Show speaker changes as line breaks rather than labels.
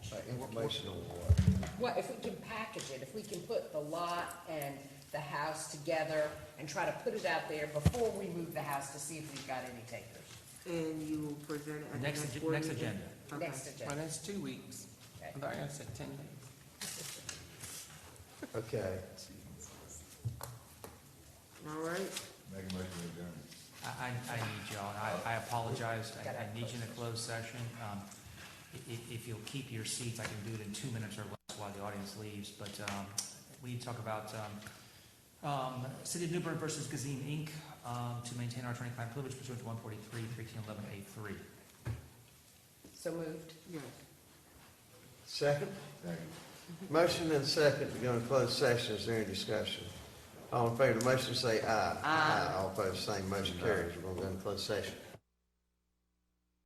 Uh, informational war.
Well, if we can package it, if we can put the lot and the house together and try to put it out there before we move the house to see if we've got any takers.
And you will present it at the
Next
next
agen-
board
next
meeting?
agenda.
Okay.
Next
Well,
agenda.
that's two weeks.
Okay.
I thought I said ten days.
Okay,
All right,
Make a motion to adjourn.
I, I, I need y'all, and I, I apologize, I, I need you in a closed session. Um, i- i- if you'll keep your seats, I can do it in two minutes or less while the audience leaves, but, um, we need to talk about, um, um, City of Newburgh versus Gazim Inc., um, to maintain our attorney-client privilege pursuant to one forty-three, thirteen eleven, eight three.
So moved.
yes.
second,
Second.
motion and second to go into closed session, is there any discussion? All in favor of the motion, say aye. Aye. All opposed, same motion carries, we're gonna go into closed session.